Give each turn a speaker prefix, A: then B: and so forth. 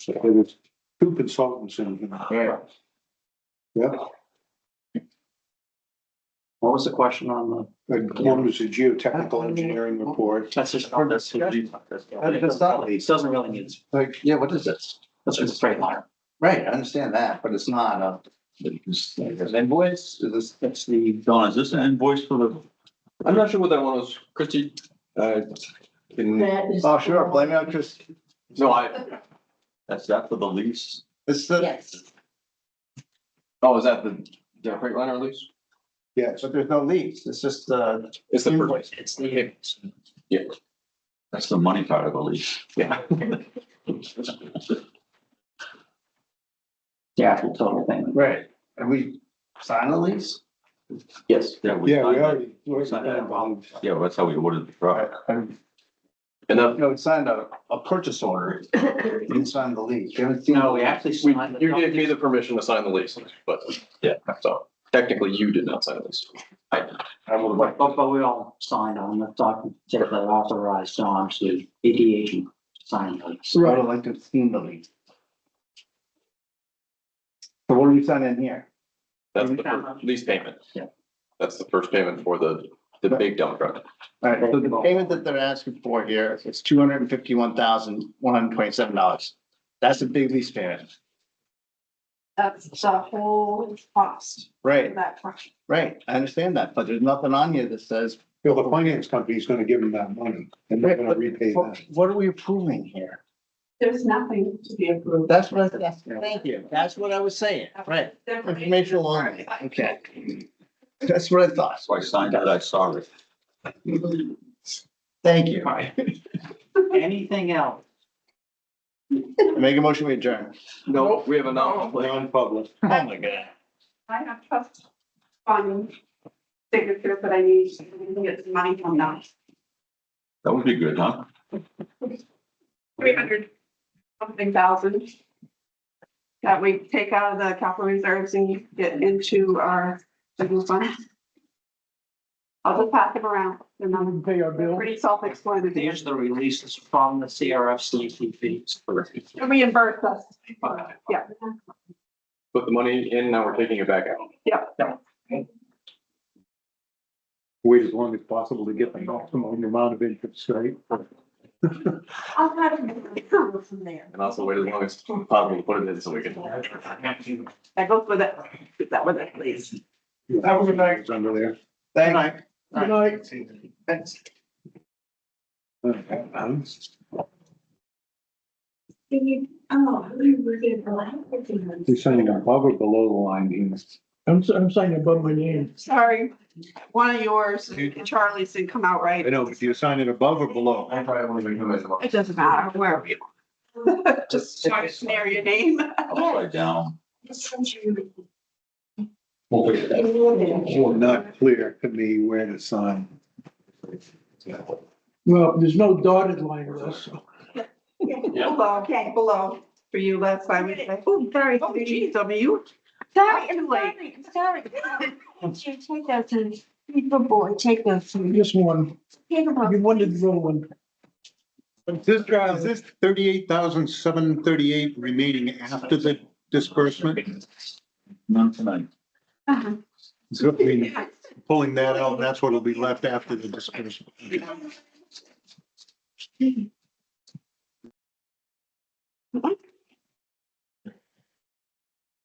A: So there was two consultants in. here.
B: Right.
A: Yeah,
C: What was the question on the?
A: and one was a geotechnical engineering report,
C: That's just on this.
B: That's not-
C: It doesn't really need,
A: like,
B: Yeah, what is this?
C: that's just a straight line.
B: Right, I understand that, but it's not uh, a. It's an invoice, is this?
C: That's the,
D: Don, is this an invoice for the?
E: I'm not sure what that one was, Christie. Uh, can,
F: That is.
B: Oh, sure, blame it on Chris.
E: no, I,
D: That's that for the lease?
B: It's the,
F: Yes,
E: oh, is that the, the Freightliner lease?
A: yes,
B: but there's no leaves, it's just the.
E: It's the first,
C: it's the,
D: That's the money part of the lease.
E: yeah.
C: the actual total thing.
B: Right. And we sign the lease?
C: Yes.
D: Yeah, we
A: yeah, we
D: signed
A: already. we already
D: signed
A: got
D: that.
A: involved.
D: that. Yeah, that's how we ordered the truck.
E: And
B: You
E: that,
B: know, we signed a, a purchase order, we didn't sign the lease. You haven't seen-
C: No, we actually
E: we,
C: signed.
E: you gave me the permission to sign the lease, but.
D: Yeah.
E: So technically you did not sign the lease.
B: I would like,
C: But, but we all signed on the document that authorized Don to ADH and sign the lease.
B: I would like to have seen the lease. So what are we signing here?
E: That's the first lease payment.
C: Yeah.
E: That's the first payment for the, the big dump truck.
B: All right, so the payment that they're asking for here is two hundred and fifty-one thousand, one hundred and twenty-seven dollars. That's a big lease payment.
F: that's the whole cost
B: Right,
F: of that project.
B: right. I understand that, but there's nothing on here that says.
A: Well, the finance company's gonna give them that money and they're gonna repay that.
B: What are we approving here?
F: There's nothing to be approved.
B: That's what I, that's, thank you. That's what I was saying. Right. Informational only. Okay. That's what I thought.
D: So I signed it, I saw it.
B: Thank you.
C: Anything else?
B: Make a motion, we adjourn.
E: No, we have a non-public.
A: Non-public.
B: Oh my God.
F: I have trust fund signature, but I need to get some money from that.
D: That would be good, huh?
F: Three hundred something thousand. That we take out of the capital reserves and get into our general fund. I'll just pass them around. They're not-
B: Pay our
F: they're pretty self-explanatory.
C: There's the releases from the CRFCT fees.
F: They'll Reimburse us. Yeah.
E: Put the money in, now we're taking it back out.
A: Wait as long as possible to get the maximum amount of interest, right?
F: I'll have it from there.
E: And also wait as long as possible to put it in so we can.
F: That goes with it. Is that with it, please?
B: Have a good night.
A: It's Under there.
B: Thank you.
C: Good
B: night. Thanks.
F: Oh, we're getting a lot of
A: You're signing above or below the line, Dean?
G: I'm, I'm signing above my name.
F: Sorry, one of yours, and Charlie's didn't come out
A: I
F: right.
A: know, but you're signing above or below?
E: I probably won't even come as well.
F: It doesn't matter, wherever you are. Just try to snare your name.
D: Upside down.
A: Well, not clear to me where to sign.
G: Well, there's no dotted line with us.
F: Below, okay, below, for you last time. we said,
H: Oh, very
F: Oh,
H: sweet.
F: geez, over you.
H: Sorry,
F: too
H: I'm
F: late.
H: sorry, I'm sorry. You Take those, and- good boy, take those.
G: Just one.
H: Take them off.
G: You wanted the wrong one.
A: Is this, is this thirty-eight thousand, seven thirty-eight remaining after the disbursement?
D: None tonight.
F: Uh-huh.
A: So I mean, Pulling that out, that's what'll be left after the disbursement.
F: What?